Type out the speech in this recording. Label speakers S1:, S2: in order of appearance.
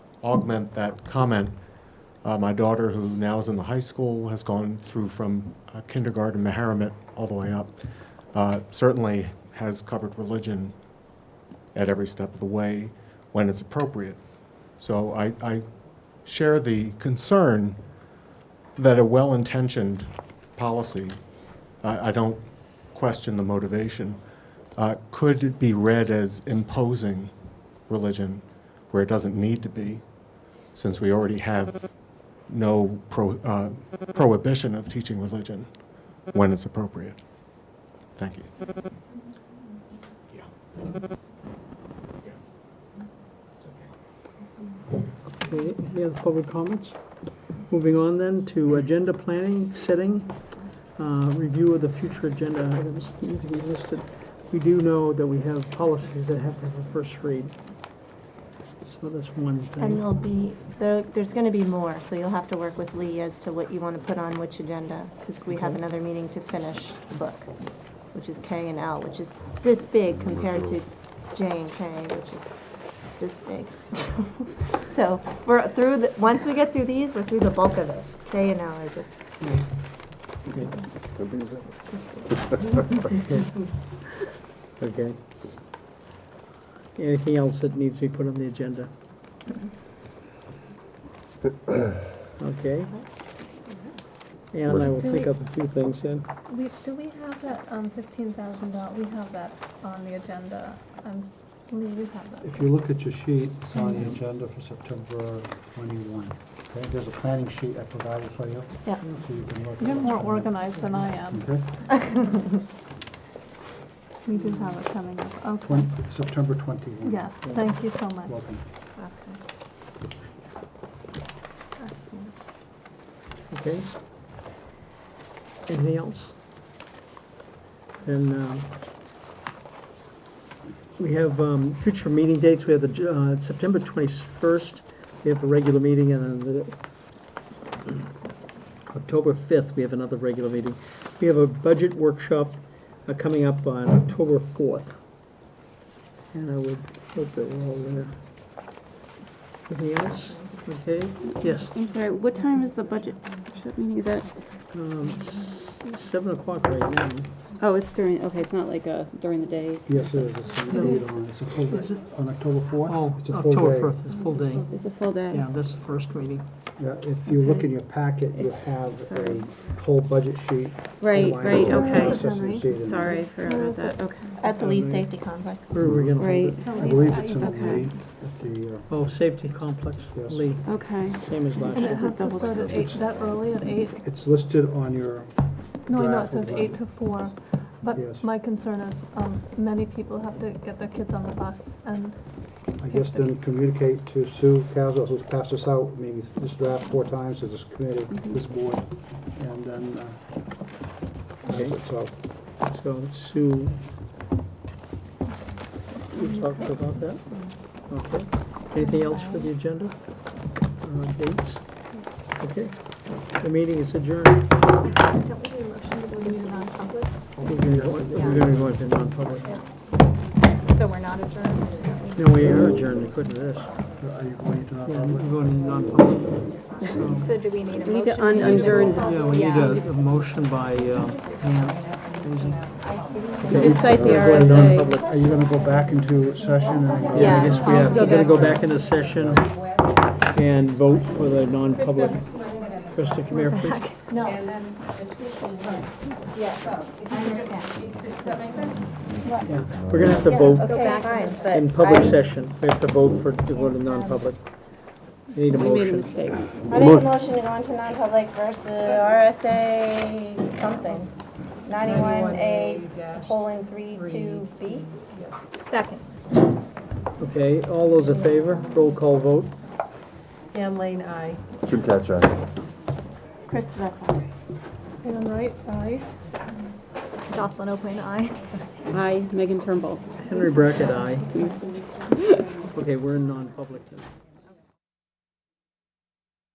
S1: augment that comment, uh, my daughter, who now is in the high school, has gone through from uh, kindergarten, Meharmet, all the way up, uh, certainly has covered religion at every step of the way when it's appropriate. So I, I share the concern that a well-intentioned policy, I, I don't question the motivation, uh, could be read as imposing religion where it doesn't need to be, since we already have no pro, uh, prohibition of teaching religion when it's appropriate. Thank you.
S2: Okay, any other public comments? Moving on then to agenda planning, setting, uh, review of the future agenda items that need to be listed. We do know that we have policies that have to have a first read. So that's one
S3: And
S2: thing.
S3: there'll be, there, there's gonna be more, so you'll have to work with Lee as to what you wanna put on which agenda, because we have
S2: Okay.
S3: another meeting to finish the book, which is K and L, which is this big compared to J and K, which is this big. So, we're through the, once we get through these, we're through the bulk of it. K and L are just,
S2: Okay. Okay. Anything else that needs to be put on the agenda? Okay. Ann and I will think up a few things then.
S4: We, do we have that, um, fifteen thousand dollar, we have that on the agenda, um, we, we have that.
S5: If you look at your sheet, it's on the agenda for September 21. Okay, there's a planning sheet I provided for you,
S3: yeah.
S5: so you can look. at
S4: You're
S5: it.
S4: more organized than I am.
S5: Okay,
S4: We do have it coming up, okay.
S5: Twen- September 21.
S4: Yes, thank you so much.
S5: Welcome.
S2: Okay. Anything else? Then, um, we have, um, future meeting dates, we have the, uh, September twenty-first, we have a regular meeting, and then the October fifth, we have another regular meeting. We have a budget workshop, uh, coming up on October fourth. And I would hope that we're all there. Anything else? Okay, yes?
S6: I'm sorry, what time is the budget workshop meeting? Is that,
S2: Um, it's seven o'clock right now.
S6: oh, it's during, okay, it's not like uh, during the day.
S5: Yes, it is. It's gonna be
S2: No.
S5: later on. It's a full
S2: Is it? Oh,
S5: day, on October 4th. It's a full day.
S2: is full day.
S6: It's a full day.
S2: Yeah, that's the first meeting.
S5: Yeah, if you look in your packet, you
S6: It's-
S5: have
S6: sorry.
S5: a whole budget sheet.
S6: Right,
S5: outlining
S6: right,
S5: the
S6: okay.
S5: process and
S4: Right.
S5: proceeding.
S6: Sorry, I forgot about that, okay.
S3: At the Lee
S2: Mhm.
S3: Safety Complex.
S2: Where are we gonna hold
S6: Right,
S2: it?
S5: I believe it's in the,
S6: Okay.
S5: lead at the, uh,
S2: Oh, safety complex,
S5: Yes.
S2: Lee,
S6: okay.
S2: same as last
S4: And
S2: year.
S4: it has to start at eight, that early at eight?
S5: it's listed on your,
S4: No, I know it
S5: Drive
S4: says
S5: over.
S4: eight to four,
S5: Yes.
S4: but my concern is, um, many people have to get their kids on the bus and
S5: I guess then communicate to Sue Casals, who's passed this out, maybe this draft four times to this committee,
S2: Mm-hmm.
S5: this board, and then, uh,
S2: Okay.
S5: that's it, so,
S2: So Sue, we talked about that. Okay. Anything else for the agenda? Uh, dates? Okay. The meeting is adjourned.
S4: Don't we do a motion to go into non-public?
S2: We're gonna go we're gonna go into non-public.
S4: So we're not adjourned?
S2: No, we are adjourned, we couldn't do this.
S5: are you going to
S2: Yeah, we're
S5: non-public?
S2: going into non-public. So-
S7: So do we need a
S6: We
S7: motion?
S6: need to un- adjourn.
S2: Yeah, we need
S7: Yeah.
S2: a, a motion by, um,
S6: Just cite the
S5: We're going
S6: RSA.
S5: non-public. Are you gonna go back into session and? go-
S2: I guess
S6: Yeah.
S2: we have, we're gonna go
S6: Yeah.
S2: back into session and vote for the non-public. Krista, come here, please. No. We're gonna have to vote
S7: Okay, fine, but
S2: in public session, we have to vote for, to go to non-public. Need a
S6: We made a
S2: motion.
S6: mistake.
S3: I make a motion to go into non-public versus RSA something, ninety-one A, colon, three, two, B.
S7: second.
S2: Okay, all those in favor, roll call vote.
S8: Ann Lane, aye.
S9: Should catch on.
S3: Chris Svezia.
S4: Anne Wright, aye.
S7: Jocelyn O'Quinn, aye.
S6: Hi, Megan Turnbull.
S2: Henry Brackett, aye. Okay, we're in non-public now.